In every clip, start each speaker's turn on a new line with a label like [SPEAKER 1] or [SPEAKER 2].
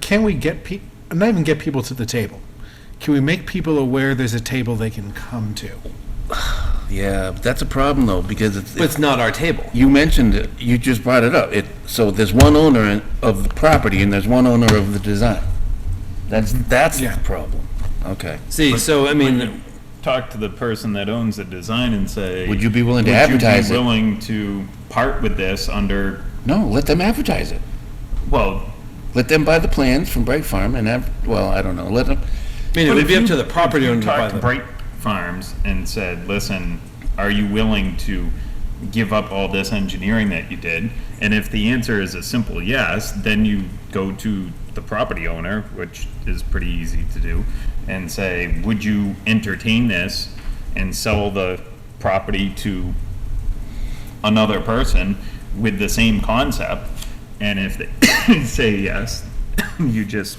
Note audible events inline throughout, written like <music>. [SPEAKER 1] can we get pe, not even get people to the table? Can we make people aware there's a table they can come to?
[SPEAKER 2] Yeah, but that's a problem though, because it's,
[SPEAKER 3] But it's not our table.
[SPEAKER 2] you mentioned it, you just brought it up. It, so there's one owner in- of the property and there's one owner of the design. That's, that's
[SPEAKER 1] Yeah.
[SPEAKER 2] the problem. Okay.
[SPEAKER 3] See, so I mean,
[SPEAKER 4] talk to the person that owns the design and say.
[SPEAKER 2] Would you be willing to
[SPEAKER 4] "Would you be
[SPEAKER 2] advertise it?"
[SPEAKER 4] willing to part with this under,
[SPEAKER 2] No, let them advertise it.
[SPEAKER 4] well,
[SPEAKER 2] Let them buy the plans from Bright Farm and have, well, I don't know, let them,
[SPEAKER 3] I mean, it
[SPEAKER 4] But
[SPEAKER 3] would
[SPEAKER 4] if
[SPEAKER 3] be up
[SPEAKER 4] you-
[SPEAKER 3] to the property
[SPEAKER 4] if you
[SPEAKER 3] owner to buy
[SPEAKER 4] talked to
[SPEAKER 3] the.
[SPEAKER 4] Bright Farms and said, listen, are you willing to give up all this engineering that you did? And if the answer is a simple yes, then you go to the property owner, which is pretty easy to do, and say, would you entertain this and sell the property to another person with the same concept? And if they <coughs> say yes, you just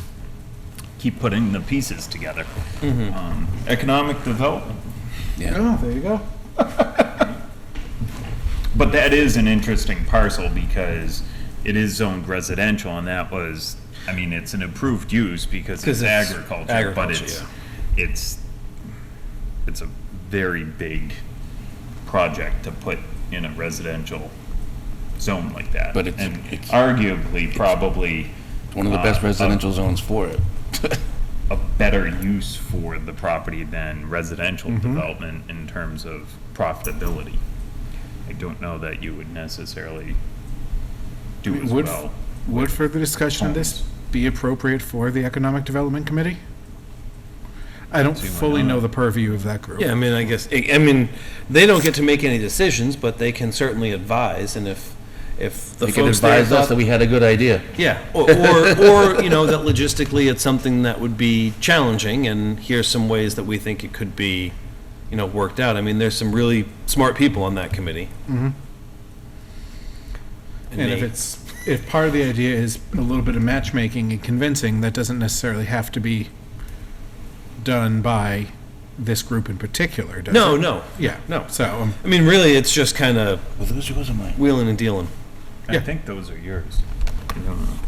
[SPEAKER 4] keep putting the pieces together. Um, economic development,
[SPEAKER 1] Oh, there you go.
[SPEAKER 4] but that is an interesting parcel because it is zoned residential, and that was, I mean, it's an improved use because
[SPEAKER 3] 'Cause
[SPEAKER 4] it's
[SPEAKER 3] it's
[SPEAKER 4] agriculture, but
[SPEAKER 3] agriculture,
[SPEAKER 4] it's, it's, it's a very big project to put in a residential zone like that.
[SPEAKER 2] But it's-
[SPEAKER 4] And
[SPEAKER 2] it's-
[SPEAKER 4] arguably, probably
[SPEAKER 2] one of the best
[SPEAKER 4] Uh, uh,
[SPEAKER 2] residential zones for it.
[SPEAKER 4] a better use for the property than residential
[SPEAKER 1] Mm-hmm.
[SPEAKER 4] development in terms of profitability. I don't know that you would necessarily do as
[SPEAKER 1] Would,
[SPEAKER 4] well.
[SPEAKER 1] would further discussion of this be appropriate for the Economic Development Committee? I don't fully know the purview of that group.
[SPEAKER 3] Yeah, I mean, I guess, I I mean, they don't get to make any decisions, but they can certainly advise, and if, if the
[SPEAKER 2] They could
[SPEAKER 3] folks there
[SPEAKER 2] advise us
[SPEAKER 3] thought
[SPEAKER 2] that we had a good idea.
[SPEAKER 3] Yeah, or, or, or, you know, that logistically it's something that would be challenging, and here's some ways that we think it could be, you know, worked out. I mean, there's some really smart people on that committee. Mm-hmm.
[SPEAKER 1] And if it's, if part of the idea is a little bit of matchmaking and convincing, that doesn't necessarily have to be done by this group in particular, does it?
[SPEAKER 3] No, no,
[SPEAKER 1] Yeah,
[SPEAKER 3] no.
[SPEAKER 1] so, um,
[SPEAKER 3] I mean, really, it's just kind of
[SPEAKER 2] Well, those are mine.
[SPEAKER 3] wheeling and dealing.
[SPEAKER 4] I
[SPEAKER 1] yeah.
[SPEAKER 4] think those are yours. I don't know.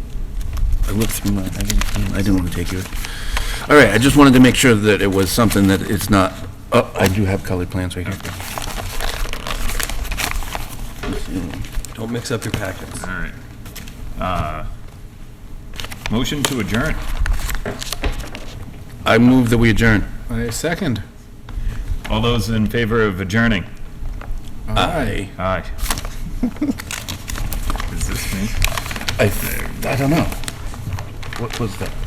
[SPEAKER 2] I looked through mine, I didn't, I didn't want to take yours. All right, I just wanted to make sure that it was something that it's not, oh, I do have colored plans right here.
[SPEAKER 3] Don't mix up your packets.
[SPEAKER 4] All right. Uh, Motion to adjourn.
[SPEAKER 2] I move that we adjourn.
[SPEAKER 1] I second.
[SPEAKER 4] All those in favor of adjourning?
[SPEAKER 1] Aye. <laughs>
[SPEAKER 4] Aye. Is this me?
[SPEAKER 2] I, I don't know. What was that?